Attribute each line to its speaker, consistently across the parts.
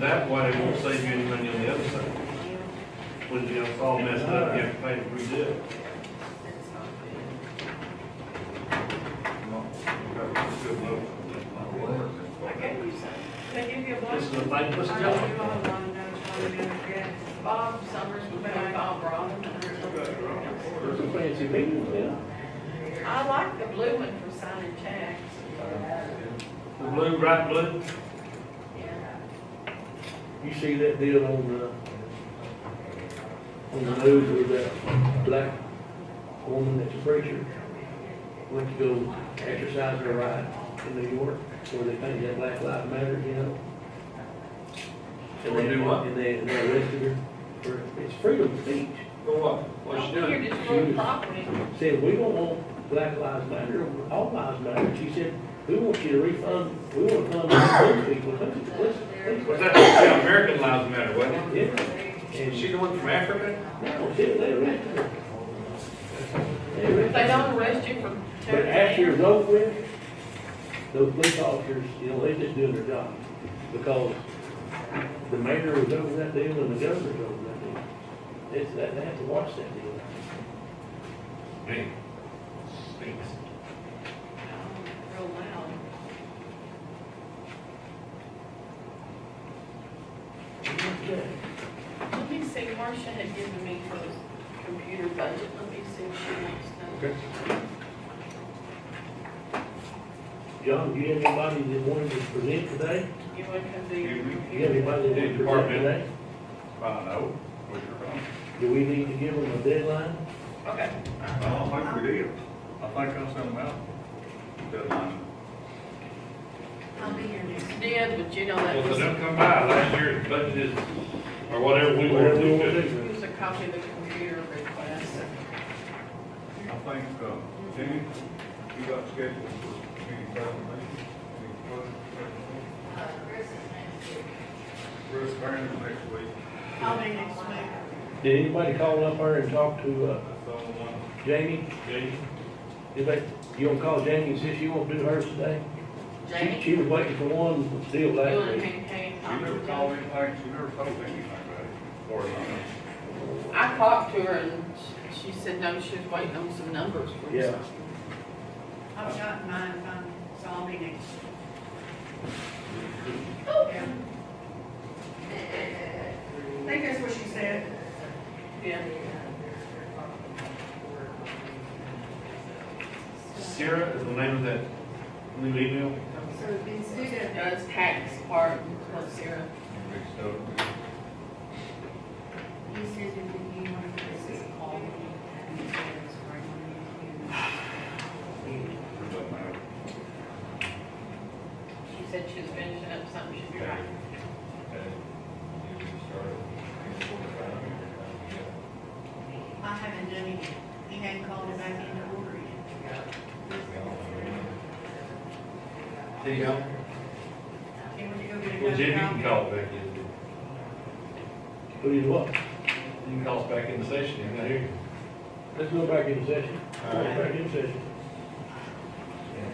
Speaker 1: That way it won't save you any money on the other side. When it's all messed up, you have to pay to redo it. Good motion.
Speaker 2: I gave you some. They give you a bunch.
Speaker 1: This is a thankless
Speaker 2: I know
Speaker 1: job.
Speaker 2: you all want to know it's what it is, yeah. Bob Summers would be like Bob Ross.
Speaker 1: There's some fancy meetings, yeah.
Speaker 2: I like the blue one for signing checks.
Speaker 1: The blue, bright blue,
Speaker 2: Yeah.
Speaker 3: You see that deal on the, on the news with that black woman that's a preacher? Went to go exercise her right in New York, where they think that black lives matter, you know? And
Speaker 1: Or
Speaker 3: they
Speaker 1: do what?
Speaker 3: And they, and they arrested her for, it's freedom of speech.
Speaker 1: for what? What's she
Speaker 2: Don't figure
Speaker 1: doing?
Speaker 2: this little property.
Speaker 3: Said, we don't want black lives matter, all lives matter. She said, we want you to refund, we want to come and those people, please, please, please.
Speaker 1: Was that, yeah, American Lives Matter, wasn't
Speaker 3: Yeah.
Speaker 1: it?
Speaker 3: And
Speaker 1: Is she the one from Africa?
Speaker 3: No, see, they arrested her. They
Speaker 2: If they
Speaker 3: arrested her.
Speaker 2: don't arrest you for.
Speaker 3: But after it's over with, those police officers, you know, they just doing their job. Because the mayor was over that deal and the governor was over that deal. It's, that, they have to watch that deal.
Speaker 1: Man, stinks.
Speaker 2: Real loud. Let me see, Marcia had given me her computer budget, let me see if she wants to.
Speaker 3: Okay. John, do you have anybody that wanted to present today?
Speaker 2: You want to do your
Speaker 1: You- you-
Speaker 3: Do you have
Speaker 2: computer?
Speaker 3: anybody that wanted to present
Speaker 1: Department.
Speaker 3: today?
Speaker 1: I know. What you're wrong.
Speaker 3: Do we need to give them a deadline?
Speaker 2: Okay,
Speaker 4: I don't think we did. I think I sent them out. Deadline.
Speaker 5: I'll be here next.
Speaker 2: you did, but you know that
Speaker 1: Well, they
Speaker 2: was,
Speaker 1: don't come by, last year's budget is, or whatever we were
Speaker 3: Whatever we want to
Speaker 1: to do.
Speaker 3: do.
Speaker 2: here's a copy of the computer request.
Speaker 4: I think, uh, Jimmy, you got scheduled for community presentation. Any further presentation?
Speaker 5: Uh, Chris is next.
Speaker 4: Bruce Barron next week.
Speaker 5: I'll be next week.
Speaker 3: Did anybody call up there and talk to, uh,
Speaker 4: That's all I want.
Speaker 3: Jamie?
Speaker 1: Okay.
Speaker 3: Anybody, you gonna call Jamie and see if she won't do hers today? She-
Speaker 2: Jamie,
Speaker 3: She was waiting for one, but still
Speaker 2: you
Speaker 3: last
Speaker 2: want to
Speaker 3: week.
Speaker 2: maintain?
Speaker 4: She never called anything, she never told me anything about it. Or, uh,
Speaker 2: I talked to her and sh- she said, no, she was waiting on some numbers for you.
Speaker 3: Yeah.
Speaker 5: I've got mine, um, so I'll be next. week. I think that's what she said.
Speaker 2: Yeah.
Speaker 1: Sarah is the name of that new email?
Speaker 5: So it's due to-
Speaker 2: No, it's tax part, plus zero.
Speaker 4: mixed up.
Speaker 5: He says that he wanted to just call me and he said it's right on
Speaker 4: It doesn't matter.
Speaker 2: She said she was finishing up something, she'd be right.
Speaker 1: Uh,
Speaker 5: you. I haven't done it. He hadn't called me back in to order yet.
Speaker 1: There you go.
Speaker 5: He went to go get
Speaker 1: Well, Jimmy, you can
Speaker 5: another copy.
Speaker 1: call it back in. You
Speaker 3: Who did what?
Speaker 1: can call us back in the session, you're not here.
Speaker 3: Let's go back into session. Go
Speaker 1: Alright.
Speaker 3: Back in session. Ten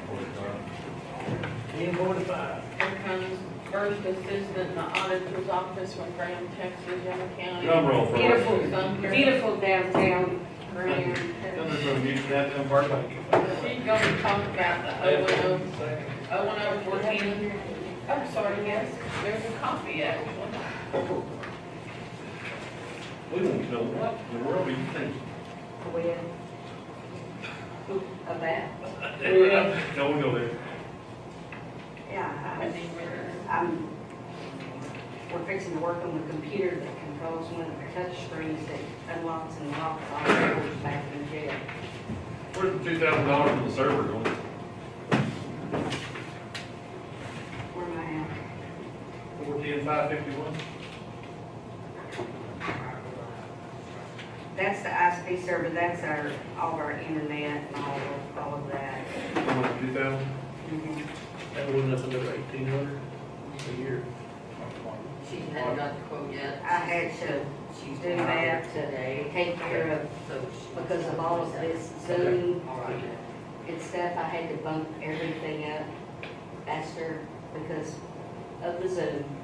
Speaker 3: forty-five.
Speaker 2: Here comes first assistant in the auditor's office from Graham, Texas, Young County.
Speaker 1: Drum roll for us.
Speaker 2: Beautiful, Sumter.
Speaker 6: Beautiful downtown
Speaker 2: Graham,
Speaker 1: Come
Speaker 2: Texas.
Speaker 1: in from Houston, downtown Barclay.
Speaker 2: She's gonna talk about the O one O, O one O fourteen. I'm sorry, yes, there's a copy actually.
Speaker 1: We want to know what in the world are you thinking?
Speaker 6: with a bat.
Speaker 1: Don't go there.
Speaker 6: Yeah,
Speaker 2: I think we're-
Speaker 6: I- I'm, we're fixing to work on the computer that controls one of the touch screens that unlocks and locks all the doors back in jail.
Speaker 1: Where's the two thousand dollars on the server going?
Speaker 6: Where am I
Speaker 1: Fourteen, five fifty-one?
Speaker 6: at? That's the ISP server, that's our, all of our internet and all of, all of that.
Speaker 1: Two thousand?
Speaker 6: Mhm.
Speaker 3: That went up another eighteen hundred a year.
Speaker 7: She hadn't got the quote
Speaker 6: I
Speaker 7: yet.
Speaker 6: had to
Speaker 7: She's
Speaker 6: do that
Speaker 7: today,
Speaker 6: to take care of,
Speaker 7: so she-
Speaker 6: because of all of this Zoom
Speaker 7: All right.
Speaker 6: and stuff, I had to bump everything up faster because of the Zoom.